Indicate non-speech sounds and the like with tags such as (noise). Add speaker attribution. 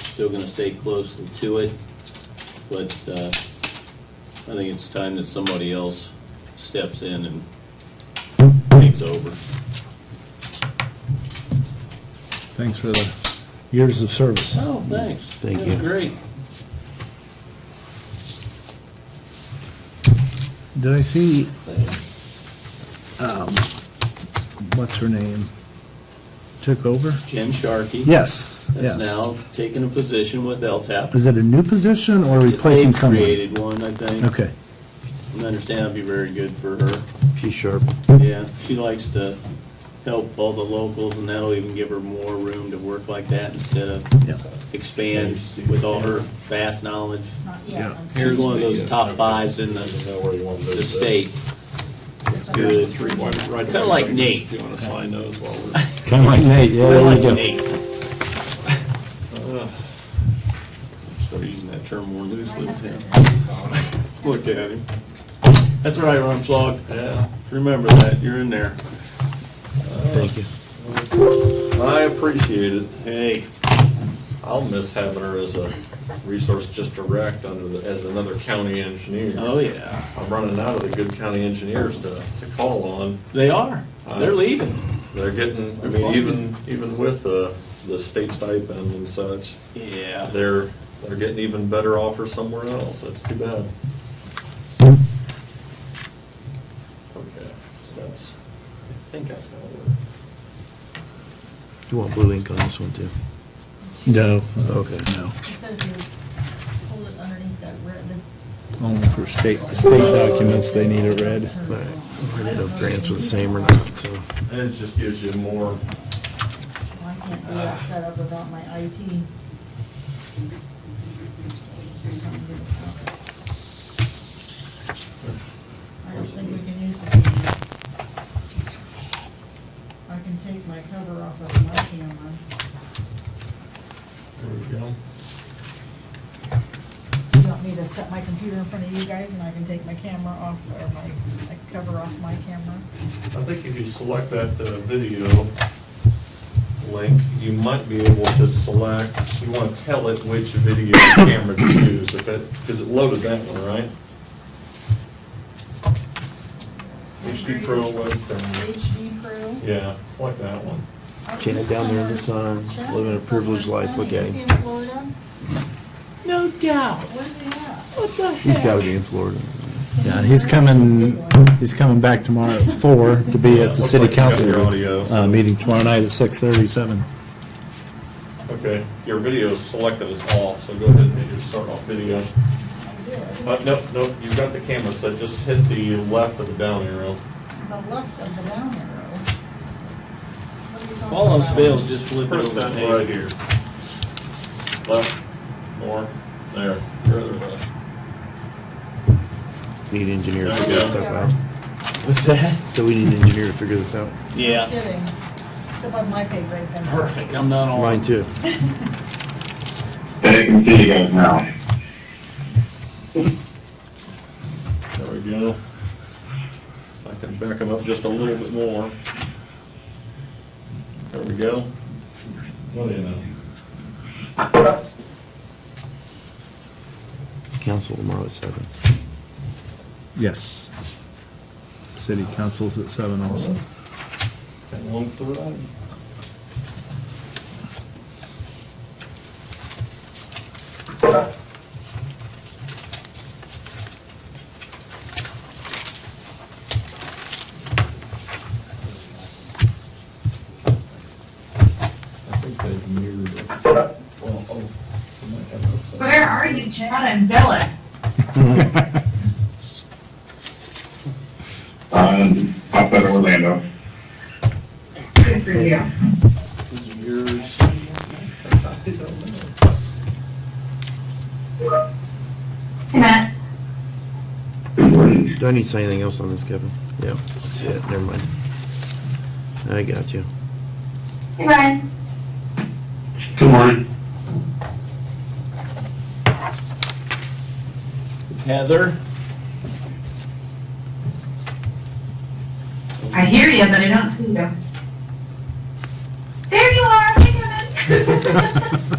Speaker 1: still gonna stay close to it, but, uh, I think it's time that somebody else steps in and takes over.
Speaker 2: Thanks for the years of service.
Speaker 1: Oh, thanks.
Speaker 3: Thank
Speaker 1: That was
Speaker 3: you.
Speaker 1: Great.
Speaker 2: Did I see, um, what's her name? Took over?
Speaker 1: Jen Sharkey.
Speaker 2: Yes,
Speaker 1: Has
Speaker 2: yes.
Speaker 1: now taken a position with LTAP.
Speaker 2: Is it a new position or replacing
Speaker 1: They
Speaker 2: someone?
Speaker 1: Created one, I think.
Speaker 2: Okay,
Speaker 1: I understand it'd be very good for her.
Speaker 3: P-sharp.
Speaker 1: Yeah, she likes to help all the locals, and that'll even give her more room to work like that instead
Speaker 2: Yeah.
Speaker 1: of expand with all her vast knowledge.
Speaker 4: Not
Speaker 2: Yeah.
Speaker 4: yet. I'm sorry.
Speaker 1: Here's uh, one of those top fives in the,
Speaker 5: know where you want to
Speaker 1: the state.
Speaker 4: It's under-
Speaker 1: Good. Kind of like Nate.
Speaker 5: you want to sign those while
Speaker 2: kinda like Nate, yeah,
Speaker 1: Kinda
Speaker 2: there
Speaker 1: like
Speaker 2: you go.
Speaker 1: Nate.
Speaker 5: we're, start using that term more loosely.
Speaker 1: Look at him. That's right, Ron Flog. Yeah. Remember that, you're in there.
Speaker 3: Thank you.
Speaker 5: I appreciate it.
Speaker 1: Hey,
Speaker 5: I'll miss having her as a resource just direct under the, as another county engineer.
Speaker 1: oh yeah,
Speaker 5: I'm running out of the good county engineers to, to call on.
Speaker 1: they are. They're leaving.
Speaker 5: They're getting, I
Speaker 1: They're
Speaker 5: mean,
Speaker 1: fine.
Speaker 5: even, even with the, the state stipend and such,
Speaker 1: Yeah.
Speaker 5: they're, they're getting even better offers somewhere else. That's too bad. Okay, so that's, I think that's how it works.
Speaker 3: You want blue ink on this one, too?
Speaker 2: No, uh,
Speaker 3: Okay.
Speaker 2: no,
Speaker 4: It says you hold it underneath that red, the.
Speaker 2: only for state, state documents, they need it read.
Speaker 3: All right. I don't know if grants were the same or not, so.
Speaker 5: And it just gives you more,
Speaker 4: Well, I can't do that setup without my IT. I don't think we can use it. I can take my cover off of my camera.
Speaker 5: there we go.
Speaker 4: You want me to set my computer in front of you guys and I can take my camera off, or my, my cover off my camera?
Speaker 5: I think if you select that uh, video link, you might be able to select, you want to tell it which video camera to use, if it, because it loaded that one, right? HD Pro was, there.
Speaker 4: HD Pro.
Speaker 5: yeah, select that one.
Speaker 3: Okay, down there in the sun, living a privileged life, look at him.
Speaker 1: No doubt.
Speaker 3: He's gotta be in Florida.
Speaker 2: Yeah, he's coming, he's coming back tomorrow at four to be at the
Speaker 5: Looks
Speaker 2: city
Speaker 5: like you got your
Speaker 2: council,
Speaker 5: audio,
Speaker 2: uh,
Speaker 5: so-
Speaker 2: meeting tomorrow night at six thirty-seven.
Speaker 5: Okay, your video is selected as off, so go ahead and hit your start off video. Uh, no, no, you've got the camera set, just hit the left of the down arrow.
Speaker 4: The left of the down arrow. What are you talking
Speaker 1: All else
Speaker 4: about?
Speaker 1: fails, just flip it
Speaker 5: Press
Speaker 1: over.
Speaker 5: that
Speaker 1: to
Speaker 5: right
Speaker 1: Nate.
Speaker 5: here. Left, more, there, your other left.
Speaker 3: Need an engineer to
Speaker 5: There
Speaker 3: figure
Speaker 5: you
Speaker 3: this
Speaker 5: go.
Speaker 3: stuff out.
Speaker 1: What's that?
Speaker 3: So we need an engineer to figure this out.
Speaker 4: No
Speaker 1: Yeah.
Speaker 4: Kidding. It's above my pay grade then.
Speaker 1: Perfect. I'm not on.
Speaker 3: Mine, too.
Speaker 6: Hey, I can see you guys now.
Speaker 5: There we go. I can back them up just a little bit more. There we go. What do you know?
Speaker 3: Council tomorrow at seven.
Speaker 2: Yes. City council's at seven also.
Speaker 5: Got one through. I think they've mirrored it. Well, oh, they might have it upside.
Speaker 7: Where are you, Chad? I'm jealous.
Speaker 6: (laughs) Um, outside of Orlando.
Speaker 7: Good for you.
Speaker 5: These are yours. I don't know.
Speaker 7: Hey, Matt.
Speaker 6: Good morning.
Speaker 3: Do I need to say anything else on this, Kevin? Yeah, that's it, never mind. I got you.
Speaker 7: Hey, Ryan.
Speaker 6: Good morning.
Speaker 1: Heather.
Speaker 7: I hear you,
Speaker 6: (laughs)
Speaker 7: but I don't see you. There you are. Hey, Kevin.